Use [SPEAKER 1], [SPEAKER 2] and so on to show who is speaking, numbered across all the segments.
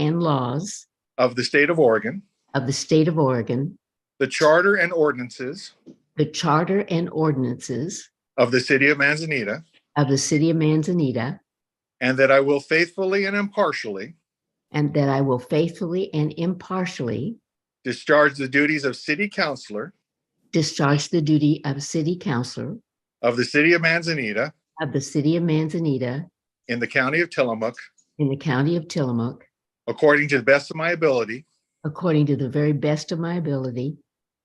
[SPEAKER 1] and laws
[SPEAKER 2] of the State of Oregon,
[SPEAKER 1] of the State of Oregon,
[SPEAKER 2] the Charter and ordinances
[SPEAKER 1] the Charter and ordinances
[SPEAKER 2] of the City of Manzanita,
[SPEAKER 1] of the City of Manzanita,
[SPEAKER 2] and that I will faithfully and impartially
[SPEAKER 1] and that I will faithfully and impartially
[SPEAKER 2] discharge the duties of City Councilor
[SPEAKER 1] discharge the duty of City Councilor
[SPEAKER 2] of the City of Manzanita
[SPEAKER 1] of the City of Manzanita
[SPEAKER 2] in the County of Tillamook
[SPEAKER 1] in the County of Tillamook
[SPEAKER 2] according to the best of my ability,
[SPEAKER 1] according to the very best of my ability.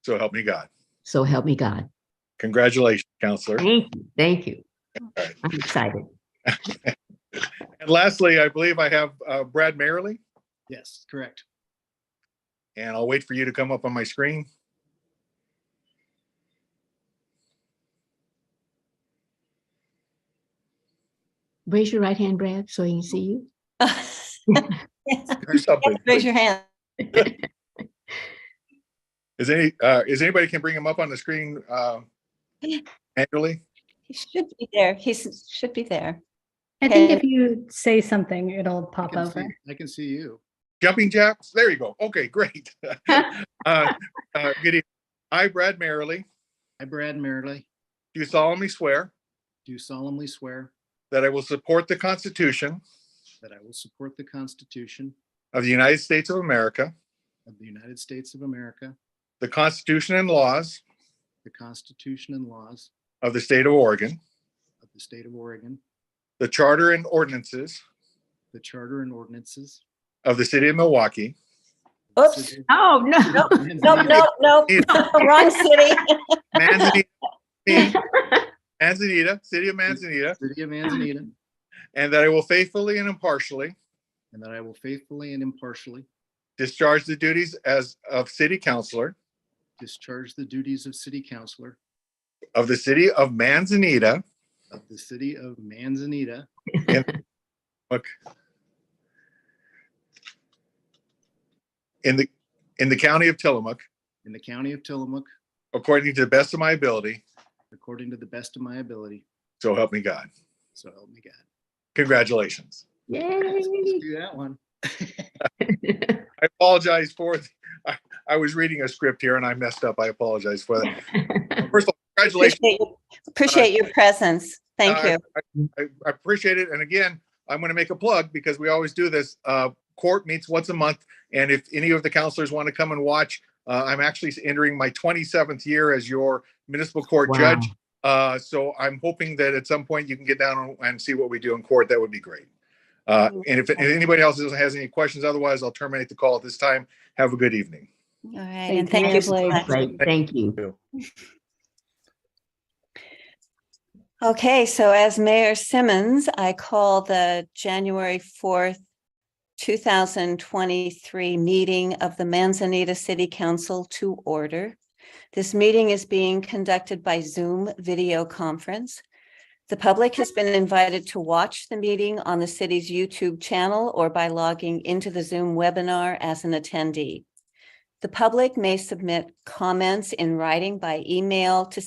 [SPEAKER 2] so help me God.
[SPEAKER 1] So help me God.
[SPEAKER 2] Congratulations, Counselor.
[SPEAKER 1] Thank you. Thank you.
[SPEAKER 2] right.
[SPEAKER 1] I'm excited.
[SPEAKER 2] And lastly, I believe I have uh, Brad Merrily,
[SPEAKER 3] Yes, correct.
[SPEAKER 2] and I'll wait for you to come up on my screen.
[SPEAKER 1] Raise your right hand, Brad, so I can see you.
[SPEAKER 2] Do something.
[SPEAKER 4] Raise your hand.
[SPEAKER 2] Is any, uh, is anybody can bring him up on the screen, uh, annually?
[SPEAKER 4] He should be there. He s- should be there.
[SPEAKER 5] I think
[SPEAKER 4] Okay.
[SPEAKER 5] if you say something, it'll
[SPEAKER 3] I
[SPEAKER 5] pop
[SPEAKER 3] can
[SPEAKER 5] over.
[SPEAKER 3] see, I can see you.
[SPEAKER 2] Jumping jacks? There you go. Okay, great. Uh, uh, Good evening. I, Brad Merrily,
[SPEAKER 3] I, Brad Merrily,
[SPEAKER 2] do solemnly swear
[SPEAKER 3] do solemnly swear
[SPEAKER 2] that I will support the Constitution
[SPEAKER 3] that I will support the Constitution
[SPEAKER 2] of the United States of America,
[SPEAKER 3] of the United States of America,
[SPEAKER 2] the Constitution and laws
[SPEAKER 3] the Constitution and laws
[SPEAKER 2] of the State of Oregon,
[SPEAKER 3] of the State of Oregon,
[SPEAKER 2] the Charter and ordinances
[SPEAKER 3] the Charter and ordinances.
[SPEAKER 2] of the City of Milwaukee,
[SPEAKER 3] of the
[SPEAKER 4] Oops.
[SPEAKER 3] City of
[SPEAKER 1] Oh, no.
[SPEAKER 4] Nope,
[SPEAKER 3] Manzanita,
[SPEAKER 4] nope, nope. Wrong city.
[SPEAKER 2] Manzanita, Manzanita, City of Manzanita,
[SPEAKER 3] City of Manzanita,
[SPEAKER 2] and that I will faithfully and impartially
[SPEAKER 3] and that I will faithfully and impartially
[SPEAKER 2] discharge the duties as of City Councilor
[SPEAKER 3] discharge the duties of City Councilor
[SPEAKER 2] of the City of Manzanita
[SPEAKER 3] of the City of Manzanita
[SPEAKER 2] in the, in the County of Tillamook,
[SPEAKER 3] in the County of Tillamook,
[SPEAKER 2] according to the best of my ability,
[SPEAKER 3] according to the best of my ability,
[SPEAKER 2] so help me God.
[SPEAKER 3] so help me God.
[SPEAKER 2] Congratulations.
[SPEAKER 1] Yay.
[SPEAKER 3] Let's Do that one.
[SPEAKER 2] I apologize for, I, I was reading a script here and I messed up. I apologize for that. First of all, congratulations.
[SPEAKER 4] Appreciate your- Appreciate your presence. Thank
[SPEAKER 2] Uh,
[SPEAKER 4] you.
[SPEAKER 2] I I appreciate it. And again, I'm going to make a plug because we always do this. Uh, court meets once a month. And if any of the counselors want to come and watch, uh, I'm actually entering my 27th year as your municipal court
[SPEAKER 1] Wow.
[SPEAKER 2] judge. Uh, so I'm hoping that at some point you can get down and see what we do in court. That would be great. Uh, and if anybody else has any questions, otherwise I'll terminate the call at this time. Have a good evening.
[SPEAKER 4] All right. And
[SPEAKER 5] Thank
[SPEAKER 4] thank
[SPEAKER 5] you,
[SPEAKER 4] you so much.
[SPEAKER 1] Great. Thank you.
[SPEAKER 4] Okay, so as Mayor Simmons, I call the January 4th, 2023 meeting of the Manzanita City Council to order. This meeting is being conducted by Zoom video conference. The public has been invited to watch the meeting on the city's YouTube channel or by logging into the Zoom webinar as an attendee. The public may submit comments in writing by email to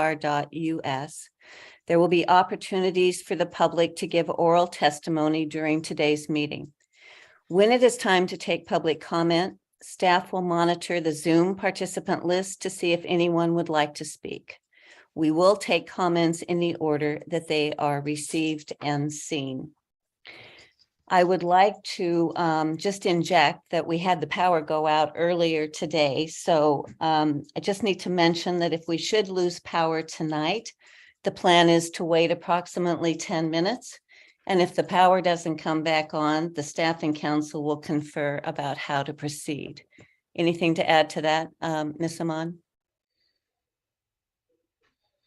[SPEAKER 4] cityhall@ci.manzanita.or.us. There will be opportunities for the public to give oral testimony during today's meeting. When it is time to take public comment, staff will monitor the Zoom participant list to see if anyone would like to speak. We will take comments in the order that they are received and seen. I would like to um, just inject that we had the power go out earlier today. So um, I just need to mention that if we should lose power tonight, the plan is to wait approximately 10 minutes. And if the power doesn't come back on, the staff and council will confer about how to proceed. Anything to add to that, um, Ms. Amon?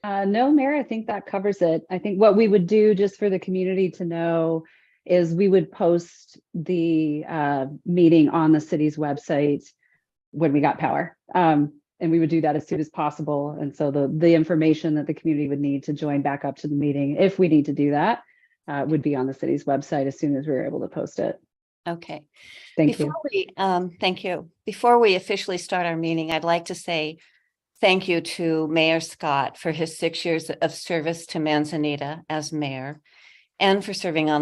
[SPEAKER 5] Uh, no, Mayor, I think that covers it. I think what we would do, just for the community to know, is we would post the uh, meeting on the city's website when we got power. Um, and we would do that as soon as possible. And so the, the information that the community would need to join back up to the meeting, if we need to do that, uh, would be on the city's website as soon as we were able to post it.
[SPEAKER 4] Okay.
[SPEAKER 5] Thank you.
[SPEAKER 4] Before we, um, thank you. Before we officially start our meeting, I'd like to say thank you to Mayor Scott for his six years of service to Manzanita as mayor and for serving on the